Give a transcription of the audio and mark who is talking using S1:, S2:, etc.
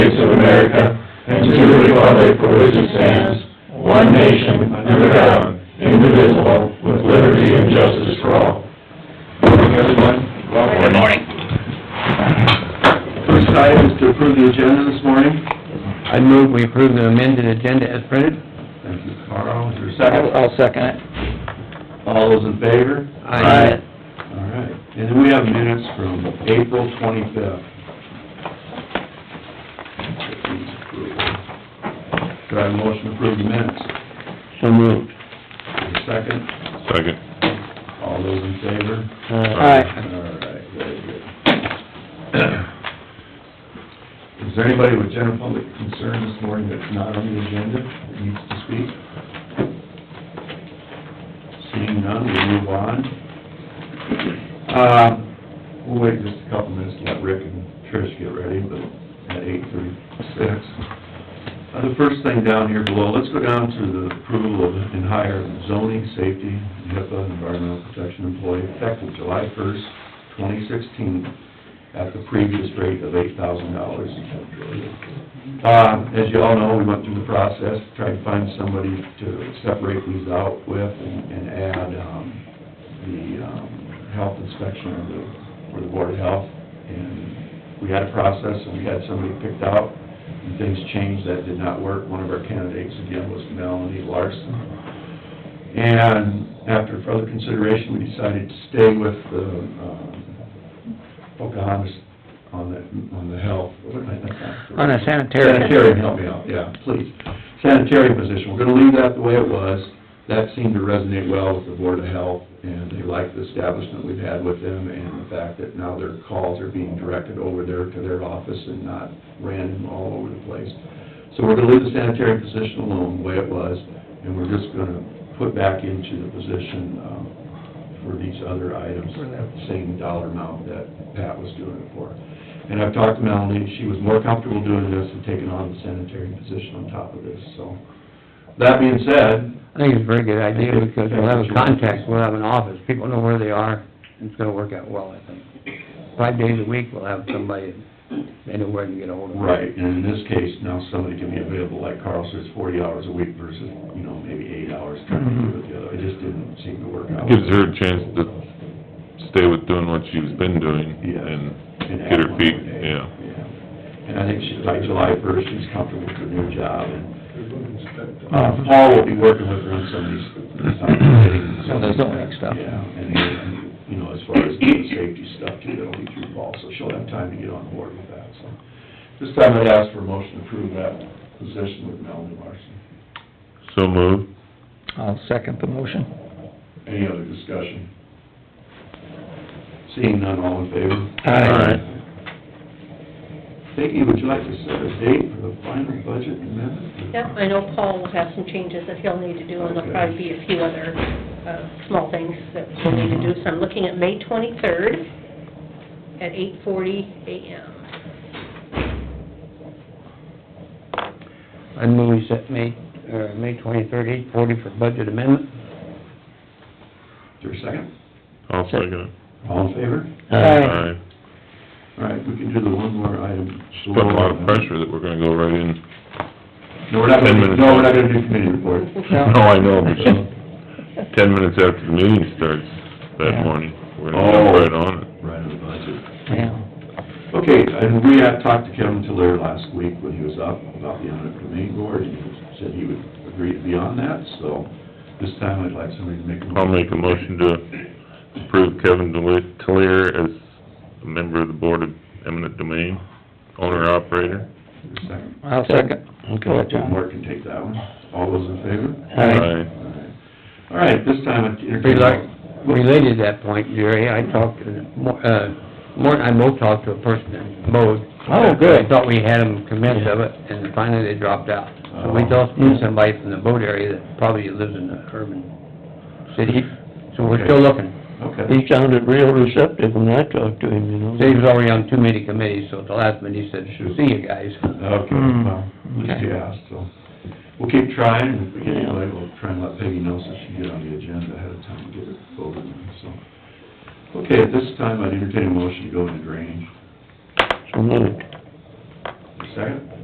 S1: republic for which it stands, one nation, under God, indivisible, with liberty and justice for all. Morning, everyone.
S2: Good morning.
S1: First item is to approve the agenda this morning.
S3: I move we approve the amended agenda as printed.
S1: Thank you, Carl. Is there a
S2: I'll
S1: second?
S2: I'll second it.
S1: All those in favor?
S3: Aye.
S1: All right. And then we have minutes from April twenty-fifth. Do I have a motion to approve the minutes?
S3: So moved.
S1: Is there a Second?
S4: Second.
S1: All those in favor?
S3: Aye.
S1: Alright, very good. Uh, Is there anybody with general public concern this morning that's not on the agenda that needs to speak? Seeing none, we move on. Uh, we'll wait just a couple minutes to let Rick and Trish get ready, but at eight thirty-six. Uh, the first thing down here below, let's go down to the approval of and hire zoning, safety, HIPAA, environmental protection employee effective July first, twenty sixteen, at the previous rate of eight thousand dollars. Uh, as you all know, we went through the process, tried to find somebody to separate these out with and and add, um, the, um, health inspection of the, for the board of health. And we had a process and we had somebody picked out and things changed. That did not work. One of our candidates again was Melanie Larson. And after further consideration, we decided to stay with the, um, Pocahontas on the, on the health. what am I thinking?
S3: On a sanitary.
S1: Sanitary, help me out, yeah, please. Sanitary position, we're gonna leave that the way it was. That seemed to resonate well with the Board of Health, and they like the establishment we've had with them, and the fact that now their calls are being directed over there to their office and not random all over the place. So we're gonna leave the sanitary position alone, the way it was, and we're just gonna put back into the position, um, for these other items at the same dollar amount that Pat was doing it for. And I've talked to Melanie, she was more comfortable doing this and taking on the sanitary position on top of this, so. That being said,
S3: I think it's a very good idea because we'll have a contact, we'll have an office, people know where they are, and it's gonna work out well, I think. Five days a week, we'll have somebody, they know where to get ahold of.
S1: right, and in this case, now somebody can be available, like Carl says, forty hours a week versus, you know, maybe eight hours trying to do it the other. It just didn't seem to work out.
S4: Gives her a chance to stay with doing what she's been doing
S1: Yes.
S4: and
S1: And
S4: get
S1: add
S4: her
S1: one
S4: feet,
S1: more day.
S4: yeah.
S1: Yeah. And I think she, by July first, she's comfortable with her new job, and, uh, Paul will be working with her on some of these,
S3: Some of the zoning stuff.
S1: Yeah, and, and, you know, as far as the safety stuff too, that'll be through Paul, so she'll have time to get on board with that, so. This time I'd ask for a motion to approve that position with Melanie Larson.
S4: So moved.
S3: I'll second the motion.
S1: Any other discussion? Seeing none, all in favor?
S3: Aye.
S1: Vicki, would you like to set a date for the final budget amendment?
S5: Yep, I know Paul will have some changes that he'll need to do, and there'll probably be a few other, uh, small things that he'll need to do. So I'm looking at May twenty-third at eight forty AM.
S3: I move we set May, uh, May twenty-third, eight forty for budget amendment.
S1: Is there a second?
S4: I'll second it.
S1: All in favor?
S4: Aye.
S1: All right, we can do the one more item.
S4: She's putting a lot of pressure that we're gonna go right in.
S1: No, we're not gonna,
S4: Ten
S1: do-
S4: minutes.
S1: no, we're not gonna do committee report.
S3: No.
S4: No, I know, but she, ten minutes after the meeting starts that
S3: Yeah.
S4: morning, we're gonna go
S1: Oh.
S4: right on it.
S1: Right on the budget.
S3: Yeah.
S1: Okay, and we had talked to Kevin Tiller last week when he was up about the audit committee board, and he said he would agree to be on that, so this time I'd like somebody to make a motion.
S4: I'll make a motion to approve Kevin Deli- Talier as a member of the Board of Eminent Domain, owner-operator.
S1: Is there a Second.
S3: I'll second. Okay, John.
S1: Mark can take that one. All those in favor?
S3: Aye.
S1: All right, this time I entertain...
S3: Rela- Related to that point, Jerry, I talked, to Mor- uh, Morton, I both talked to a person in Bode.
S1: Oh, good.
S3: I thought we had them convinced of it, and finally they dropped out. So we
S1: Oh.
S3: thought knew somebody from the Bode area that probably lives in the urban city, so we're still looking.
S1: Okay,
S3: sounded real receptive when I talked to him, you know. He was already on too many committees, so at the last minute, he said,
S1: Shoot.
S3: "See you Hmm. guys."
S1: okay, well, at least you asked, so... We'll keep trying, and if we get anybody, we'll try and let Peggy know so she can get on the agenda ahead of time to get it voted on, so... Okay, at this time, I'd entertain a motion to go into drainage.
S3: So moved.
S1: Second?